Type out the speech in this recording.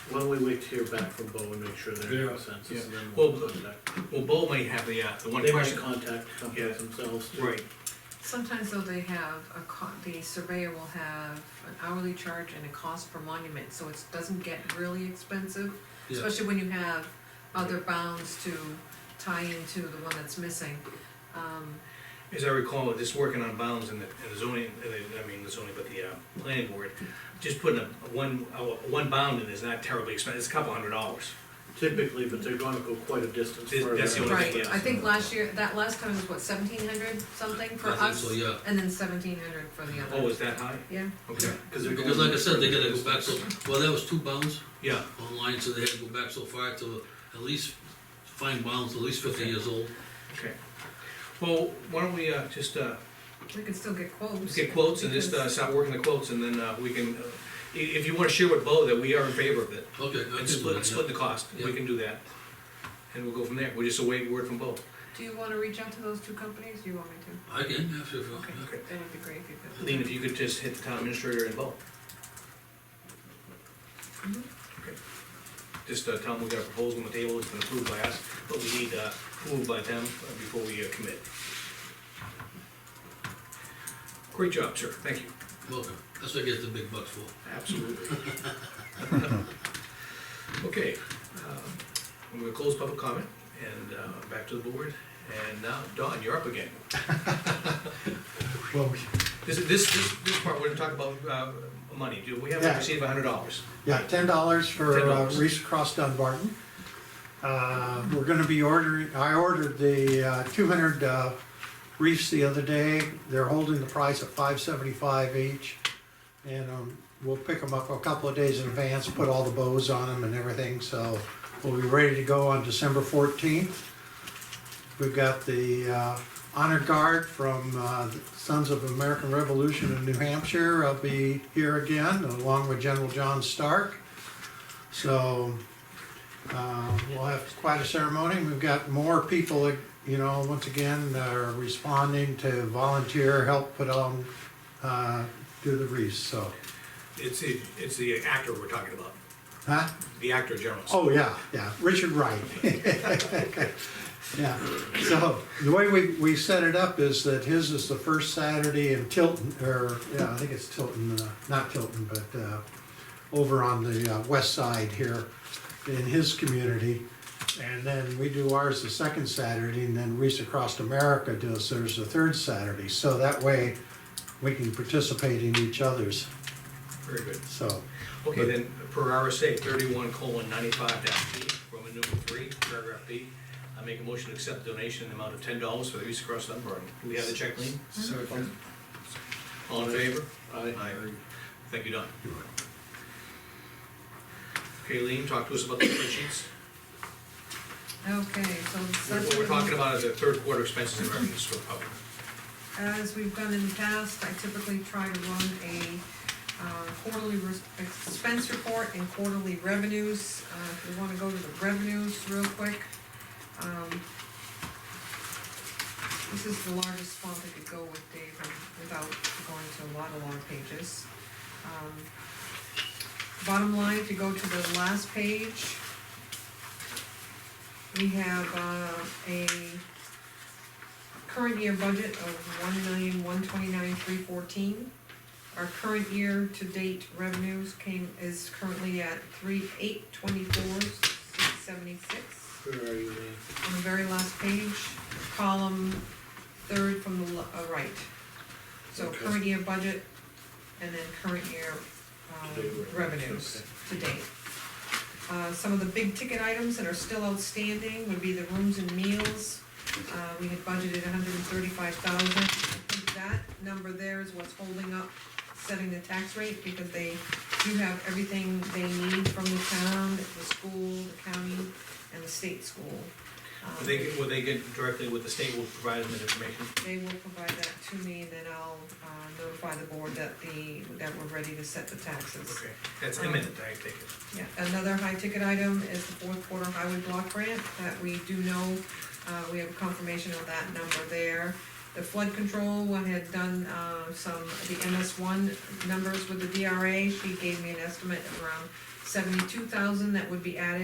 Why don't we wait to hear back from Bo and make sure they're in Yeah, consensus, and then Well, we'll contact. Well, Bo might have the, uh, the one They might question. contact companies themselves too. Right, Sometimes though they have a co- the surveyor will have an hourly charge and a cost per monument, so it doesn't get really expensive. Yeah. Especially when you have other bounds to tie into the one that's missing. Um, as I recall, just working on bounds in the, in the zoning, in the- I mean, the zoning, but the, uh, planning board, just putting a, a one, a one bound in is not terribly expensive, it's a couple hundred dollars. Typically, but they're gonna go quite a distance That's further. the only- Right, yes. I think last year, that last time was what, seventeen hundred something for I think us? so, yeah. And then seventeen hundred for the other. Oh, is that high? Yeah, Okay, Cause they're going. Because like I said, they gotta go back so, well, that was two bounds yeah, online, so they had to go back so far to at least find bounds at least fifty years old. okay. Well, why don't we, uh, just, uh, we could still get quotes. get quotes and just, uh, because- start working the quotes, and then, uh, we can, uh, i- if you wanna share with Bo that we are in favor of it, Okay, I can and do split, that, split yeah. the cost, we Yeah. can do that. And we'll go from there, we're just awaiting word from Bo. Do you wanna reach out to those two companies? Do you want me to? I can, yeah, sure, sure, Okay, Okay. that would be great if you could. Lean, if you could just hit the town administrator and Bo. Mhm. Okay. Just uh, tell them we got a proposal on the table, it's been approved by us, but we need uh, approved by them uh, before we uh, commit. Great job, sir, thank you. yeah. Welcome, that's what I get the big bucks for. Absolutely. Okay, um, I'm gonna close public comment and uh, back to the board. And now, Don, you're up again. Well, we- This, this, this- this part, we're gonna talk about uh, money. Do we have Yeah. received a hundred dollars? yeah, ten dollars for uh, $10. Reese Across Dunbarton. Uh, we're gonna be ordering, I ordered the uh, two hundred uh, reefs the other day. They're holding the price at five seventy-five each. And um, we'll pick them up a couple of days in advance, put all the bows on them and everything, so we'll be ready to go on December fourteenth. We've got the uh, honor guard from uh, the Sons of American Revolution in New Hampshire. I'll be here again, along with General John Stark. So uh, we'll have quite a ceremony. We've got more people, you know, once again, that are responding to volunteer help put on, uh, do the wreaths, so. It's the, it's the actor we're talking about, Huh? the actor general. Oh, yeah, yeah, Richard Wright. Yeah, so the way we, we set it up is that his is the first Saturday in Tilton, or, yeah, I think it's Tilton, uh, not Tilton, but uh, over on the uh, west side here in his community. And then we do ours the second Saturday, and then Reese Across America does theirs the third Saturday. So that way, we can participate in each other's, Very good. so. Okay, then, per RSA thirty-one colon ninety-five dash B, Roman numeral three, paragraph B, I make a motion to accept donation in the amount of ten dollars for the East Cross Dunbar. Do we have the check, Lean? All in favor? Aye. Thank you, Don. Okay, Lean, talk to us about the spreadsheets. Okay, so. What we're that's- talking about is the third quarter expenses and revenues for the public. As we've done in the past, I typically try to run a uh, quarterly res- expense report and quarterly revenues. Uh, If you wanna go to the revenues real quick. um, This is the largest font I could go with, Dave, um, without going to a lot of long pages. Um, Bottom line, if you go to the last page, we have uh, a current year budget of one million, one twenty-nine, three fourteen. Our current year to date revenues came, is currently at three, eight twenty-four, seventy-six. Where are you, Lean? On the very last page, column third from the, le- uh, right. So Okay. current year budget and then current year, To date um, revenues, revenues to date. Uh, some of the big ticket items that are still outstanding would be the rooms and meals, uh, we had budgeted hundred and thirty-five thousand. I think that number there is what's holding up setting the tax rate, because they do have everything they need from the town, the school, the county, and the state school. Will Um, they, will they get directly with the state, will provide them that information? They will provide that to me, and then I'll, uh, notify the board that the, that we're ready to set the taxes. Okay, that's imminent, I take it. Yeah, another high-ticket item is the fourth quarter highway block grant that we do know, uh, we have confirmation of that number there. The flood control, we had done, uh, some, the MS one numbers with the DRA, she gave me an estimate of around seventy-two thousand that would be added